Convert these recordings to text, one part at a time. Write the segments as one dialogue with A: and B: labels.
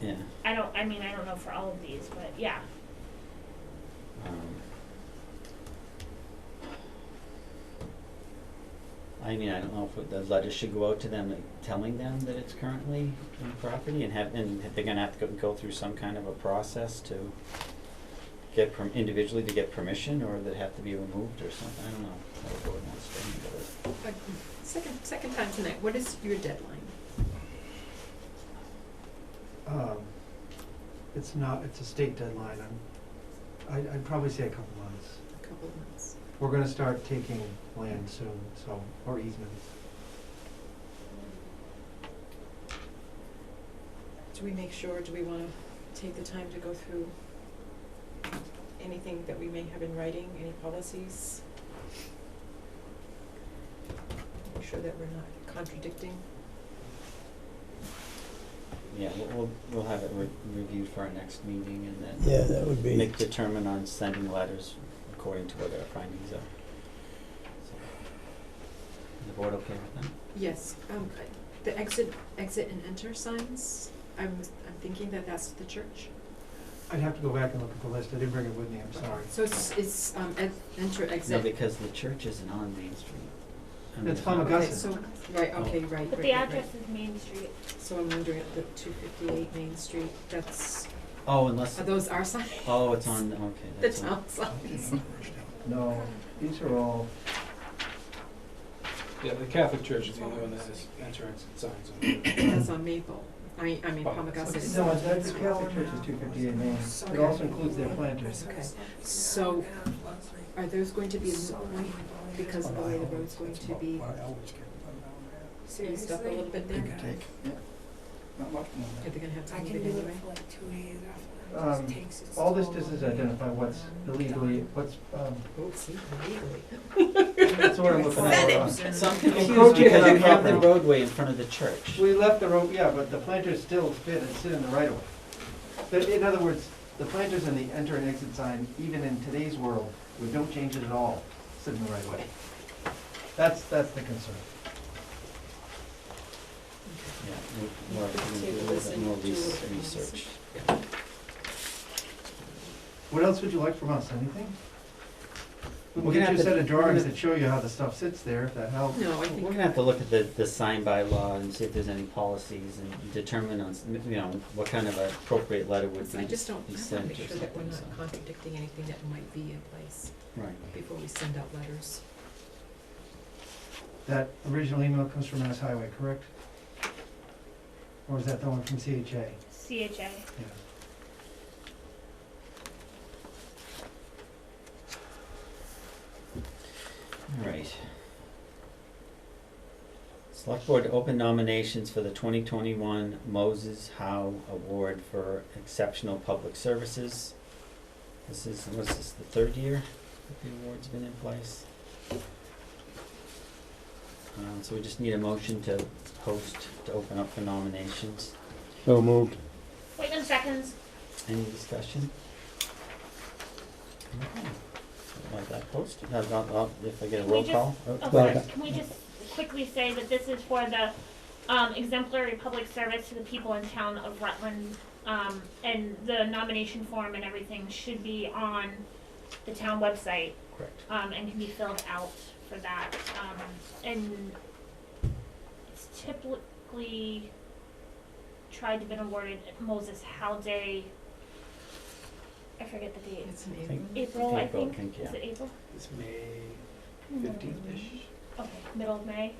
A: yeah.
B: I don't, I mean, I don't know for all of these, but yeah.
A: Um, I mean, I don't know if the letter should go out to them, like, telling them that it's currently in property and have, and that they're gonna have to go, go through some kind of a process to get perm, individually to get permission, or that have to be removed or something, I don't know. how the board wants to handle it.
C: Uh, Second, second time tonight, what is your deadline?
D: Um, it's not, it's a state deadline, I'm, I'd, I'd probably say a couple months.
C: A couple of months.
D: We're gonna start taking land soon, so, or easements.
C: Do we make sure, do we wanna take the time to go through anything that we may have in writing, any policies? Make sure that we're not contradicting.
A: Yeah, we'll, we'll, we'll have it re- reviewed for our next meeting and then
E: Yeah, that would be.
A: make determine on sending letters according to what our findings are. So, Is the board okay with that?
C: Yes, um, I- the exit, exit and enter signs, I'm, I'm thinking that that's the church.
D: I'd have to go back and look at the list, I didn't bring it with me, I'm sorry.
C: So it's, it's, um, ex- enter,
A: No,
C: exit.
A: because the church isn't on Main Street. I mean,
D: It's
A: it's
D: on
A: not-
C: Okay,
D: Augusta.
C: so, right, okay, right, right,
B: But
C: right,
B: the
C: right.
B: address is Main Street.
C: So I'm wondering, if the two fifty-eight Main Street, that's,
A: Oh, unless,
C: are those our signs?
A: oh, it's on, okay,
C: The
A: that's on,
C: town signs?
D: No, these are all,
F: Yeah, the Catholic Church is the only one that has entrance signs on it.
C: That's on Maple, I mean, I mean,
F: Oh.
C: Palmagussit is.
D: no, that's Catholic Church is two fifty-eight Main, it also includes their planters.
C: Okay, so are those going to be one, because of the way the road's going to be eased up a little bit there? Are they gonna have to
G: I
C: move
G: can
C: it
G: do it
C: anyway?
G: for like two days after.
D: Um,
G: It just takes its
D: All this
G: toll
D: does is
G: on me.
D: identify what's illegally, what's, um,
C: Oh, see, legally.
D: that's what I'm looking
C: Said
D: at.
C: it.
D: Uh,
A: so I'm confused
D: Encroaching
A: because
D: on
A: you have the
D: property.
A: roadway in front of the church.
D: We left the road, yeah, but the planters still fit and sit in the right of way. But in other words, the planters and the enter and exit sign, even in today's world, we don't change it at all, sit in the right of way. That's, that's the concern.
A: Yeah, we- we're gonna do a little bit more res- research.
D: What else would you like from us, anything?
A: We're gonna
D: We'll get you a
A: have to-
D: set of
A: we're gonna-
D: drawings that show you how the stuff sits there, if that helps.
C: No, I
A: We're
C: think,
A: gonna have to look at the, the sign by law and see if there's any policies and determine on, s- you know, what kind of appropriate letter would be.
C: I just don't,
A: be
C: I wanna
A: sent
C: make
A: or
C: sure that we're
A: something,
C: not
A: so.
C: contradicting anything that might be in place
A: Right.
C: before we send out letters.
D: That original email comes from Mass Highway, correct? Or is that the one from CHA?
B: CHA.
D: Yeah.
A: All right. Select Board to open nominations for the twenty twenty-one Moses Howe Award for Exceptional Public Services. This is, what's this, the third year that the award's been in place? Uh, so we just need a motion to post, to open up for nominations.
E: So moved.
B: Waitman seconds.
A: Any discussion? Okay. Like that posted, No, no, no, if I get a
B: We
A: roll
B: just-
A: call? oh,
B: Of
E: Well,
B: course, can we just quickly say that this is for the um, exemplary public service to the people in town of Rutland? Um, and the nomination form and everything should be on the town website
A: Correct.
B: um, and can be filled out for that. Um, and it's typically tried to been awarded at Moses Halday. I forget the date.
C: It's an
A: I
C: email.
A: think-
B: April, I
A: April,
B: think.
A: I think, yeah.
B: Is it April?
F: It's May fifteenth-ish.
B: Okay, middle of May.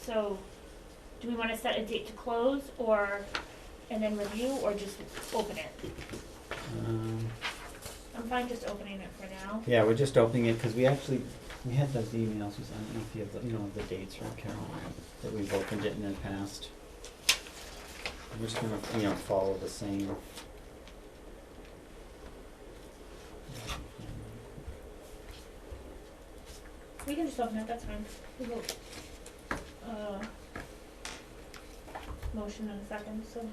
B: So, do we wanna set a date to close or, and then review, or just open it?
A: Um,
B: I'm fine just opening it for now.
A: Yeah, we're just opening it, because we actually, we had those emails, was- I don't know if you have, the- you know, the dates, right, Carol? That we've opened it in the past. We're just gonna, you know, follow the same.
B: We can just open it, that's fine. We will, uh, motion in a second, so